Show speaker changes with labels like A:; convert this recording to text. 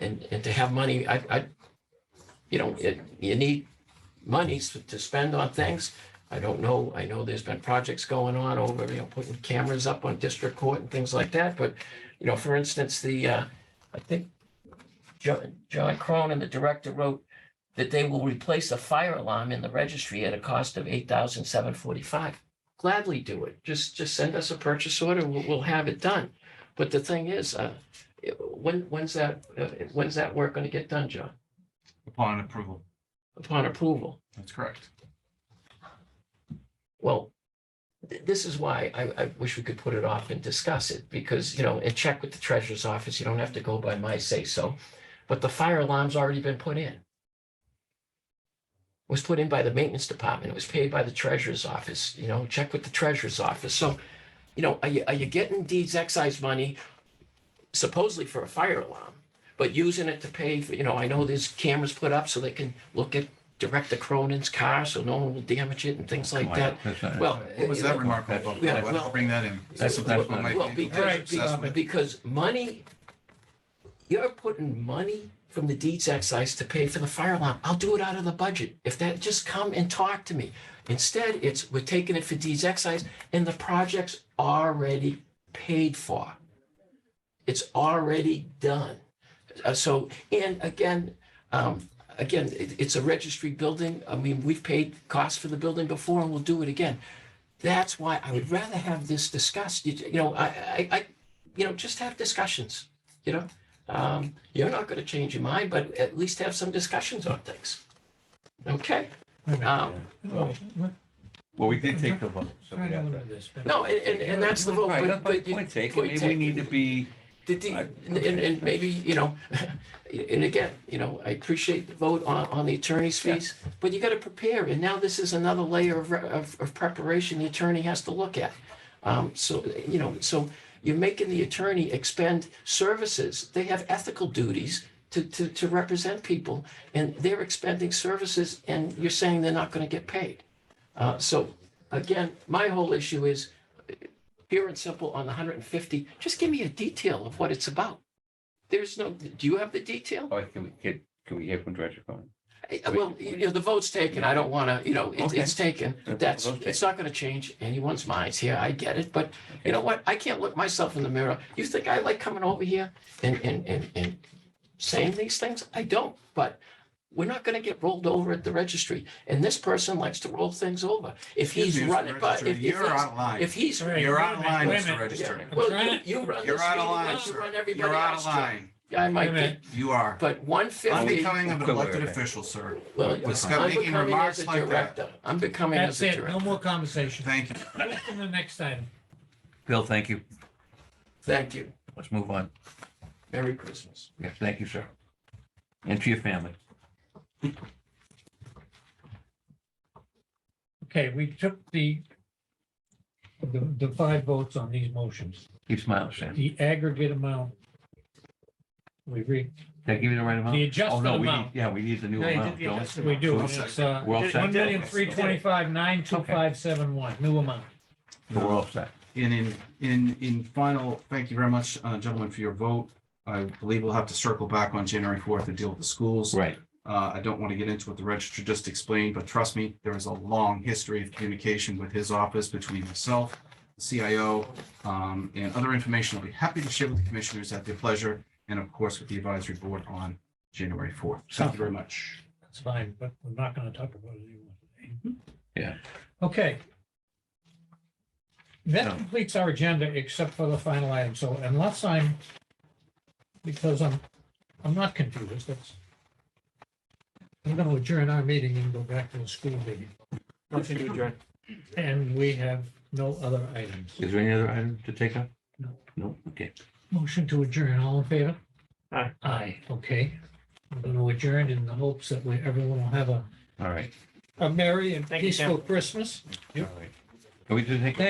A: and, and to have money, I, I, you know, it, you need monies to spend on things. I don't know, I know there's been projects going on over, you know, putting cameras up on district court and things like that, but, you know, for instance, the, uh, I think John, John Cronin, the director, wrote that they will replace a fire alarm in the registry at a cost of eight thousand seven forty-five. Gladly do it. Just, just send us a purchase order. We'll, we'll have it done. But the thing is, uh, it- when, when's that, uh, when's that work going to get done, John?
B: upon approval.
A: Upon approval?
B: That's correct.
A: Well, th- this is why I, I wish we could put it off and discuss it, because, you know, and check with the treasurer's office, you don't have to go by my say-so. But the fire alarm's already been put in. Was put in by the maintenance department, it was paid by the treasurer's office, you know, check with the treasurer's office, so. You know, are you, are you getting deeds excise money supposedly for a fire alarm? But using it to pay, for you know, I know there's cameras put up so they can look at, direct the Cronin's car, so no one will damage it and things like that. Well.
B: What was
A: it-
B: that
A: it-
B: remark all about?
A: Yeah,
B: Why don't
A: well-
B: you Bring that in.
C: That's- that's what I-
A: Well, because,
B: Assessment.
A: because money, you're putting money from the deeds excise to pay for the fire alarm. I'll do it out of the budget. If that, just come and talk to me. Instead, it's, we're taking it for deeds excise and the project's already paid for. It's already done. Uh, so, and again, um, again, it, it's a registry building. I mean, we've paid costs for the building before and we'll do it again. That's why I would rather have this discussed, you, you know, I, I, I, you know, just have discussions, you know? Um, you're not gonna change your mind, but at least have some discussions on things. Okay? Um,
D: Well, we're
C: Well, we did take the vote, so we
D: trying to
C: have to.
D: limit this, but-
A: no, and, and, and that's the vote,
C: Right, that's
A: but,
C: my
A: but you-
C: point taken.
A: point
C: Maybe we need to
A: taken.
C: be,
A: The D-
C: I-
A: and, and and maybe, you know, and again, you know, I appreciate the vote on, on the attorney's fees, but you gotta prepare, and now this is another layer of, re- of, of preparation the attorney has to look at. Um, so, you know, so you're making the attorney expend services, they have ethical duties to, to, to represent people, and they're expending services, and you're saying they're not gonna get paid. Uh, so, again, my whole issue is, pure and simple on the hundred and fifty, just give me a detail of what it's about. There's no, do you have the detail?
C: oh, can we get, can we hear from Director Cronin?
A: Eh, Well, you know, the vote's taken. I don't want to, you know, it's, it's taken. That's, it's not going to change anyone's minds here. I get it. But you know what? I can't look myself in the mirror. You think I like coming over here and, and, and, and saying these things? I don't, but we're not going to get rolled over at the registry. And this person likes to roll things over. If he's
B: Excuse me, Mr.
A: running, but
B: Registrar,
A: if, if
B: You're
A: he's,
B: out of line.
A: if he's
D: All right,
B: You're
D: wait a
B: out of
D: minute,
B: line,
D: wait a
B: Mr.
D: minute.
B: Registrar.
D: I'm
A: Well,
D: trying-
A: you run this
B: You're out of line,
A: meeting, you
B: sir.
A: run
B: You're
A: everybody
B: out of
A: else. John.
B: line.
A: I might
D: Wait a
A: be,
D: minute.
B: You are.
A: but one
B: I'm
A: fifty,
B: becoming an
C: Equivalent.
B: elected official, sir.
A: well,
B: Well, stop
A: I'm
B: making
A: becoming
B: remarks
A: as a
B: like that.
A: director. I'm becoming as
D: That's
A: a
D: it, no
A: director.
D: more conversation.
B: Thank you.
D: Let's go to the next item.
C: Bill, thank you.
A: Thank you.
C: Let's move on.
A: Merry Christmas.
C: Yes, thank you, sir. And to your family.
D: Okay, we took the, the, the five votes on these motions.
C: Keep smiling, Sam.
D: The aggregate amount. We read,
C: Did I give you the right amount?
D: The
C: Oh,
D: adjusted
C: no, we
D: amount.
C: need- Yeah, we need the new
D: No, you
C: amount.
D: did the
C: don't we?
D: adjusted. We do, and it's, uh,
C: We're all set.
D: one million, three twenty-five, nine, two, five, seven, one, new amount.
C: So We're all set.
B: And in, in, in final, thank you very much, uh, gentlemen, for your vote. I believe we'll have to circle back on January fourth and deal with the schools.
C: Right.
B: Uh, I don't want to get into what the registrar just explained, but trust me, there is a long history of communication with his office between myself, the CIO, um, and other information I'll be happy to share with the commissioners at their pleasure, and of course with the advisory board on January fourth. Thank you very much.
D: That's fine, but we're not gonna talk about it anymore.
E: Mm-hmm.
C: Yeah.
D: Okay. That
C: No.
D: completes our agenda except for the final item, so unless I'm, because I'm, I'm not confused, that's. I'm gonna adjourn our meeting and go back to the school meeting,
E: Motion to adjourn.
D: and we have no other items.
C: Is there any other item to take up?
D: No.
C: No, okay.
D: Motion to adjourn, all in favor?
E: Aye.
D: Aye, okay. I'm gonna adjourn in the hopes that we, everyone will have a,
C: All right.
D: a merry and
E: Thank you, Tim.
D: peaceful Christmas.
C: All right. Can we just take?